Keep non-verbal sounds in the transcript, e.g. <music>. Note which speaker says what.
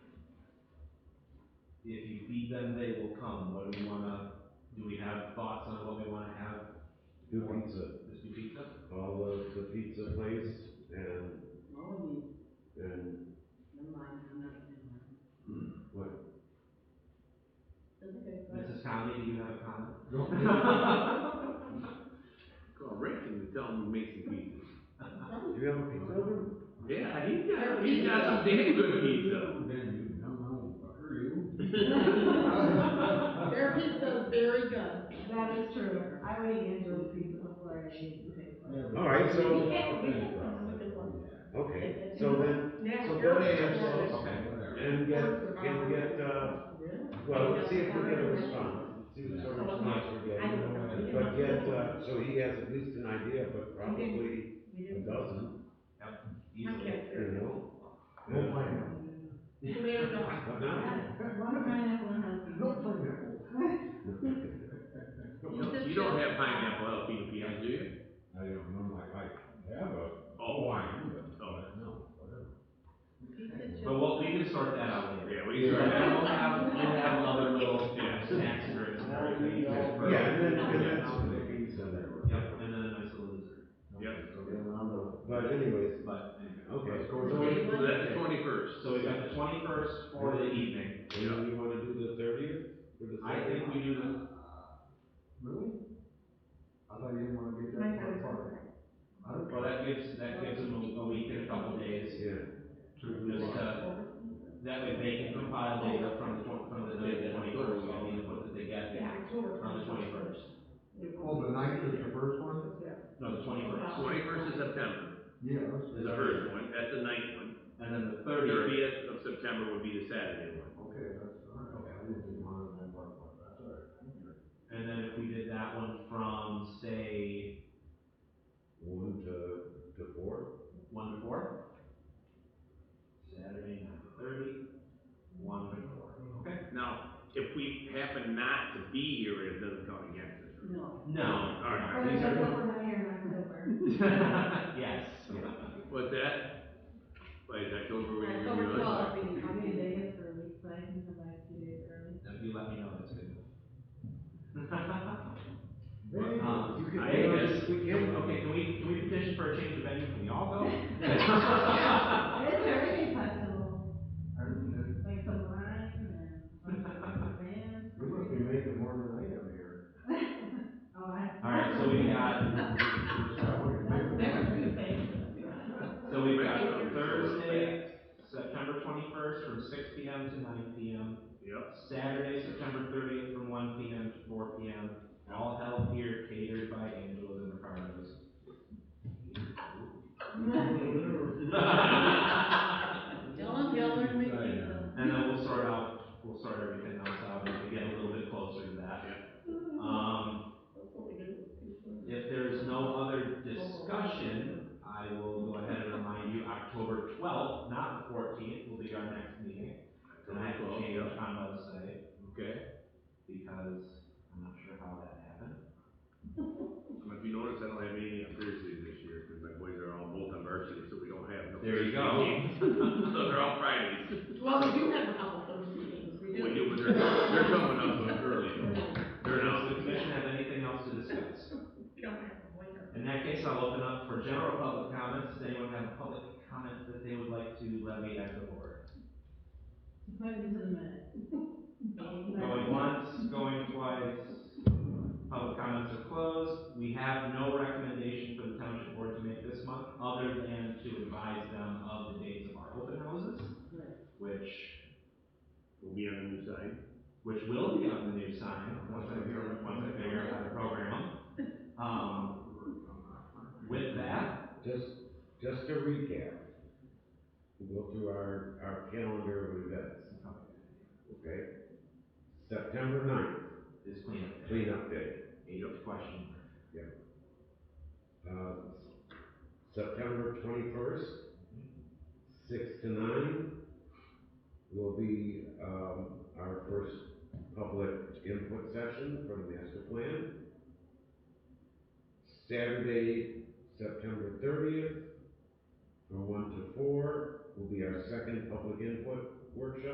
Speaker 1: If you feed them, they will come. What do we wanna, do we have thoughts on what we wanna have?
Speaker 2: New pizza,
Speaker 1: This new pizza?
Speaker 2: all the, the pizza place and,
Speaker 3: Well, I mean,
Speaker 2: and
Speaker 3: never mind, I'm not, never mind.
Speaker 4: Hmm.
Speaker 2: what?
Speaker 3: That's okay, go ahead.
Speaker 1: Mrs. Conley, do you have a comment?
Speaker 5: No.
Speaker 4: Call Rick and tell him to make some pizzas.
Speaker 2: Do you have a pizza oven?
Speaker 4: Yeah, he's got, he's got some damn good pizza. <laughs>
Speaker 5: Then Oh, you come on, fucker, you.
Speaker 3: Their pizza is very good.
Speaker 6: That is true. I would eat Angela's pizza before I ate the pizza.
Speaker 2: <laughs> All right, so,
Speaker 5: Yeah,
Speaker 2: okay, so then,
Speaker 6: Yeah.
Speaker 2: so go to
Speaker 6: Angela's.
Speaker 2: Angela's
Speaker 5: Okay, whatever.
Speaker 2: and get, and get, uh, well, let's see if we get a response. See what sort of response we're getting. But get, uh, so he has at least an idea, but probably a dozen,
Speaker 1: Easily.
Speaker 2: you know? We'll find <laughs> out. But now,
Speaker 6: One pineapple and a
Speaker 5: No pineapple.
Speaker 4: You don't- You don't have pineapple jalapeno pizzas, do you?
Speaker 2: I don't know, like, I have a
Speaker 4: Oh,
Speaker 2: wine, but,
Speaker 4: Oh.
Speaker 2: no, whatever.
Speaker 1: But what, we can sort that out later.
Speaker 4: Yeah, we can sort that
Speaker 1: And
Speaker 4: out.
Speaker 1: we'll have, we'll have another little,
Speaker 4: Yeah.
Speaker 1: snacks and drinks and everything.
Speaker 2: Yeah, and then, and then
Speaker 1: Yeah.
Speaker 2: some of the pizza there.
Speaker 1: Yep, and then a nice little dessert,
Speaker 2: But anyways,
Speaker 1: but anyway.
Speaker 5: go
Speaker 2: okay, so
Speaker 3: to-
Speaker 4: So that's the twenty-first.
Speaker 1: So we got the twenty-first for the evening.
Speaker 2: Do you wanna do the thirtieth?
Speaker 1: I think we do the,
Speaker 5: Really? I thought you didn't wanna get that far apart. I don't
Speaker 1: well,
Speaker 5: care.
Speaker 1: that gives, that gives them a a week and a couple days.
Speaker 2: Yeah.
Speaker 1: Just, uh, that way they can compile data from the, twen- from the night of the twenty-first, so we can put it together on the twenty-first.
Speaker 5: Oh, the ninth is the first one?
Speaker 1: No, the twenty-first.
Speaker 4: Twenty-first of September
Speaker 5: Yeah.
Speaker 4: is the first one, that's the ninth one.
Speaker 1: And then the thirtieth,
Speaker 4: Thirtieth of September would be the Saturday one.
Speaker 5: Okay, that's, all right, okay, I didn't want to, that part, but that's all right.
Speaker 1: and then if we did that one from, say,
Speaker 2: One to, to four?
Speaker 1: one to four? Saturday, nine to thirty, one to four, okay?
Speaker 4: Now, if we happen not to be here, it doesn't count against us.
Speaker 3: No.
Speaker 1: No,
Speaker 4: All right.
Speaker 6: Or
Speaker 1: alright,
Speaker 6: they
Speaker 1: these
Speaker 6: go
Speaker 1: are,
Speaker 6: for the hair in October.
Speaker 1: <laughs> yes.
Speaker 4: What's that? Wait, is October when you're
Speaker 3: October
Speaker 4: doing it?
Speaker 3: twelfth, we need
Speaker 6: I'll be in
Speaker 3: to-
Speaker 6: Vegas for a week, but I can come back two days early.
Speaker 1: If you let me know, that's good. <laughs>
Speaker 2: Um,
Speaker 1: Um,
Speaker 2: you can-
Speaker 1: I guess,
Speaker 2: We can,
Speaker 1: okay, can we, can we petition for a change of venue, can we all
Speaker 6: <laughs>
Speaker 1: go?
Speaker 6: It is a reggae festival,
Speaker 5: I didn't, that-
Speaker 6: like some wine
Speaker 1: <laughs>
Speaker 6: and bands.
Speaker 5: we must be making more than I am here.
Speaker 6: <laughs> Oh, I.
Speaker 1: Alright, so we
Speaker 6: <laughs>
Speaker 1: got, <laughs>
Speaker 5: Yeah, we can make it.
Speaker 6: There was two things.
Speaker 1: so we've got Thursday, September twenty-first, from six P M to nine P M.
Speaker 4: Yep.
Speaker 1: Saturday, September thirtieth, from one P M to four P M, all held here, catered by Angela's and Ricardo's.
Speaker 3: Dylan Geller and
Speaker 6: <laughs>
Speaker 3: McKee.
Speaker 1: <laughs> And then we'll sort out, we'll sort everything else out as we get a little bit closer to that. Um, if there's no other discussion, I will go ahead and remind you, October twelfth, not the fourteenth, will be our next meeting. And I have to change
Speaker 4: Yep.
Speaker 1: my website
Speaker 4: Okay,
Speaker 1: because I'm not sure how that happened.
Speaker 4: if you notice, I don't have anything on Thursdays this year, because my boys are all both on varsity, so we don't have no.
Speaker 1: There you go.
Speaker 4: Thursday games. <laughs> So they're all
Speaker 6: <laughs>
Speaker 4: Fridays.
Speaker 3: Well, we do have a couple Thursday meetings, we
Speaker 4: We
Speaker 3: do.
Speaker 4: do, but they're, they're coming up early. They're
Speaker 1: Does
Speaker 4: not.
Speaker 1: the commission have anything else to
Speaker 3: <laughs>
Speaker 1: discuss?
Speaker 3: We don't have a waiter.
Speaker 1: In that case, I'll open up for general public comments. Does anyone have a public comment that they would like to levy at the board?
Speaker 6: Put it into the minute.
Speaker 3: <laughs>
Speaker 1: Going once, going twice, public comments are closed. We have no recommendation for the township board to make this month, other than to advise them of the dates of our open houses, which,
Speaker 4: We'll be on the new side.
Speaker 1: which will be on the new sign, once I figure, once I figure out how to program. them. Um, with that,
Speaker 2: <laughs> Just, just to recap, we'll go through our, our calendar of events, okay? September ninth,
Speaker 1: is cleanup day,
Speaker 2: cleanup day.
Speaker 1: eighth question mark.
Speaker 2: Uh, September twenty-first, six to nine, will be, um, our first public input session for the master plan. Saturday, September thirtieth, from one to four, will be our second public input workshop.